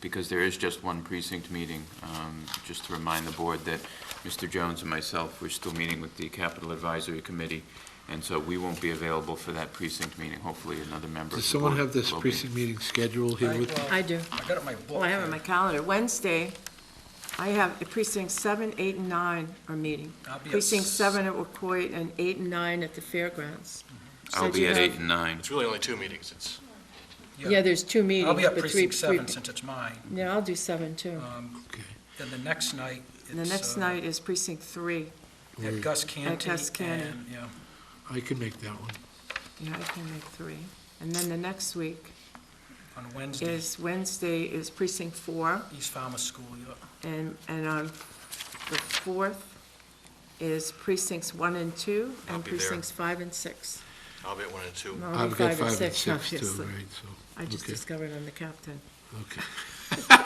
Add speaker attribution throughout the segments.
Speaker 1: because there is just one precinct meeting, um, just to remind the board that Mr. Jones and myself, we're still meeting with the Capital Advisory Committee, and so we won't be available for that precinct meeting. Hopefully, another member
Speaker 2: Does
Speaker 1: of the
Speaker 2: someone
Speaker 1: board
Speaker 2: have this
Speaker 1: will be.
Speaker 2: precinct meeting schedule here with?
Speaker 3: I do.
Speaker 4: I got it in my book.
Speaker 3: Well, I have it on my calendar. Wednesday, I have precinct seven, eight, and nine are meeting.
Speaker 4: I'll be at
Speaker 3: Precinct
Speaker 4: s-
Speaker 3: seven at Wacoit and eight and nine at the fairgrounds.
Speaker 1: I'll
Speaker 3: Since
Speaker 1: be
Speaker 3: you
Speaker 1: at
Speaker 3: have-
Speaker 1: eight and nine.
Speaker 5: It's really only two meetings. It's,
Speaker 3: Yeah, there's two meetings.
Speaker 4: I'll be at
Speaker 3: but three-
Speaker 4: precinct
Speaker 3: three-
Speaker 4: seven since it's mine.
Speaker 3: Yeah, I'll do seven too.
Speaker 4: Um, Then the next night,
Speaker 3: And the
Speaker 4: it's,
Speaker 3: next
Speaker 4: uh,
Speaker 3: night is precinct three.
Speaker 2: Mm.
Speaker 4: At Gus Canty.
Speaker 3: Gus Canty.
Speaker 4: and, Yeah,
Speaker 2: I can make that one.
Speaker 3: Yeah, I can make three. And then the next week
Speaker 4: on Wednesday,
Speaker 3: is, Wednesday is precinct four,
Speaker 4: East Farmer School, yeah.
Speaker 3: and, and on the fourth is precincts one and two,
Speaker 5: I'll
Speaker 3: and
Speaker 5: be there.
Speaker 3: precincts five and six.
Speaker 5: I'll be at one and two.
Speaker 3: No, I'll be
Speaker 2: I've got
Speaker 3: and
Speaker 2: five and six too,
Speaker 3: obviously.
Speaker 2: right,
Speaker 3: I
Speaker 2: so,
Speaker 3: just
Speaker 2: okay,
Speaker 3: discovered I'm the captain.
Speaker 2: okay.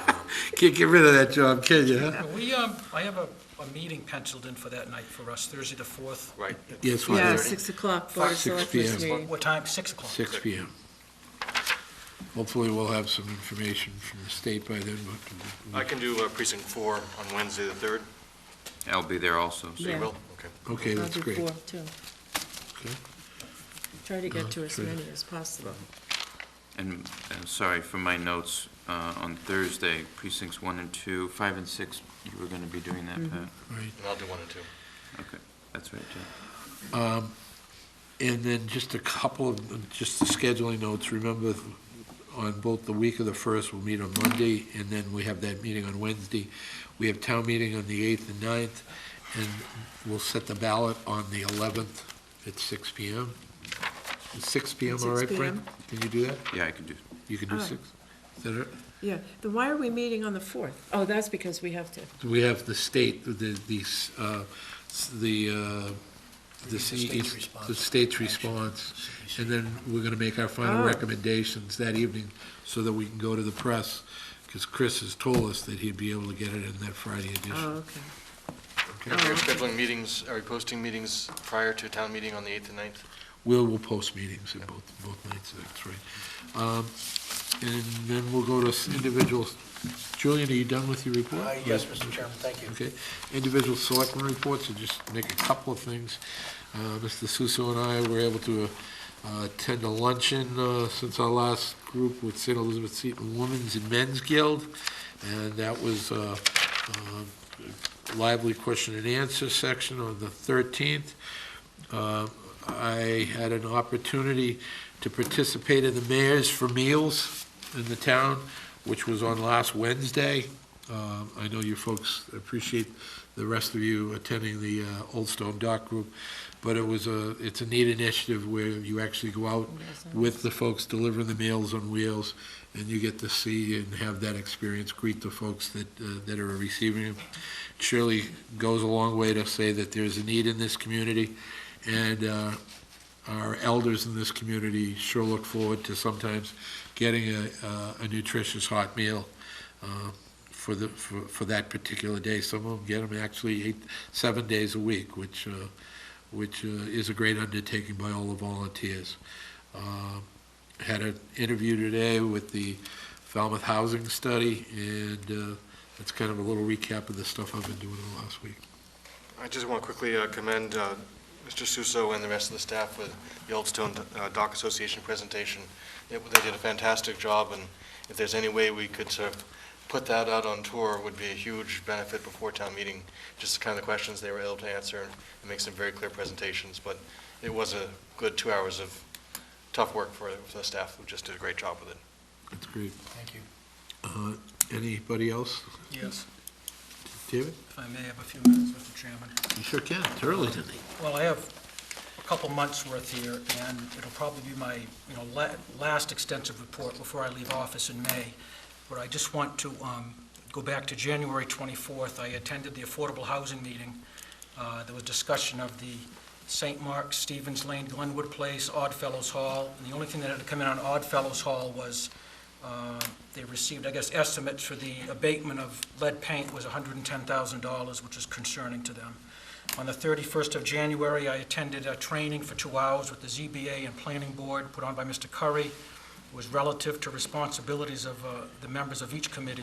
Speaker 2: Can't get rid of that job, can you, huh?
Speaker 4: Uh, We, um, I have a, a meeting penciled in for that night for us, Thursday the fourth.
Speaker 5: Right.
Speaker 2: Yeah, it's
Speaker 3: Yeah,
Speaker 2: fine.
Speaker 3: six o'clock, Board of
Speaker 2: 6
Speaker 3: Selectmen's
Speaker 2: PM.
Speaker 3: meeting.
Speaker 4: What time? Six o'clock.
Speaker 2: Six P M. Hopefully, we'll have some information from the state by then, but,
Speaker 5: I can do uh, precinct four on Wednesday, the third.
Speaker 1: I'll be there also, so
Speaker 3: Yeah.
Speaker 5: You will? Okay.
Speaker 2: okay,
Speaker 3: I'll
Speaker 2: that's
Speaker 3: do
Speaker 2: great.
Speaker 3: four, too.
Speaker 2: Okay.
Speaker 3: Try to
Speaker 2: Uh,
Speaker 3: get to as
Speaker 2: three.
Speaker 3: many as possible.
Speaker 1: And i sorry for my notes, uh, on Thursday, precincts one and two, five and six, you were gonna be doing that, Pat?
Speaker 2: Right.
Speaker 5: And I'll do one and two.
Speaker 1: Okay, that's right, Jeff.
Speaker 2: And then just a couple of, just the scheduling notes, remember on both the week of the first, we'll meet on Monday, and then we have that meeting on Wednesday. We have town meeting on the eighth and 9th, and we'll set the ballot on the eleventh at six P M. Six P M,
Speaker 3: At
Speaker 2: all
Speaker 3: 6
Speaker 2: right, Fran?
Speaker 3: p.m.
Speaker 2: Can you do that?
Speaker 1: Yeah, I can do,
Speaker 2: You can do
Speaker 3: All right.
Speaker 2: six? Is that all right?
Speaker 3: Yeah, then why are we meeting on the fourth? Oh, that's because we have to.
Speaker 2: We have the state, the, the, s- uh, s- the, uh, the
Speaker 4: state's
Speaker 2: CE
Speaker 4: response.
Speaker 2: the state's response. And then we're gonna make our final
Speaker 3: Oh.
Speaker 2: recommendations that evening so that we can go to the press, because Chris has told us that he'd be able to get it in that Friday edition.
Speaker 3: Oh, okay.
Speaker 5: Are
Speaker 2: okay?
Speaker 5: you scheduling meetings, are you posting meetings prior to town meeting on the eighth and ninth?
Speaker 2: We'll, we'll post meetings in both, both nights, that's right. Um, And then we'll go to s- individuals. Julian, are you done with your report?
Speaker 4: Uh,
Speaker 6: Yes, Mr. Chairman, thank you.
Speaker 2: Okay, individual selectmen reports, and just make a couple of things. Uh, Mr. Suso and I were able to uh, attend a luncheon uh, since our last group with St. Elizabeth Seton Women's and Men's Guild, and that was uh, uh, lively question and answer section on the 13th. Uh, I had an opportunity to participate in the Mayor's for Meals in the town, which was on last Wednesday. Um, I know you folks appreciate the rest of you attending the uh, Old Stone Dock Group, but it was a, it's a neat initiative where you actually go out with the folks delivering the meals on wheels, and you get to see and have that experience, greet the folks that, uh, that are receiving them. Surely goes a long way to say that there's a need in this community, and uh, our elders in this community sure look forward to sometimes getting a, a- a nutritious hot meal uh, for the, for, for that particular day. Some of them get them actually eight, seven days a week, which, uh, which uh, is a great undertaking by all the volunteers. Um, Had an interview today with the Falmouth Housing Study, and uh, that's kind of a little recap of the stuff I've been doing the last week.
Speaker 5: I just want to quickly uh, commend uh, Mr. Suso and the rest of the staff with the Old Stone uh, Dock Association presentation. It- They did a fantastic job, and if there's any way we could sort of put that out on tour, would be a huge benefit before town meeting, just the kind of the questions they were able to answer and make some very clear presentations. But it was a good two hours of tough work for for the staff, who just did a great job with it.
Speaker 2: That's great.
Speaker 4: Thank you.
Speaker 2: Uh, Anybody else?
Speaker 4: Yes,
Speaker 2: David?
Speaker 4: if I may have a few minutes, Mr. Chairman.
Speaker 2: You sure can. It's early tonight.
Speaker 4: Well, I have a couple months' worth here, and it'll probably be my, you know, la- last extensive report before I leave office in May. But I just want to um, go back to January 24th. I attended the Affordable Housing Meeting. Uh, There was discussion of the St. Mark's, Stevens Lane, Glenwood Place, Oddfellows Hall. And the only thing that had come in on Oddfellows Hall was uh, they received, I guess, estimates for the abatement of lead paint was $110,000, which is concerning to them. On the 31st of January, I attended a training for two hours with the ZBA and Planning Board put on by Mr. Curry. It was relative to responsibilities of uh, the members of each committee.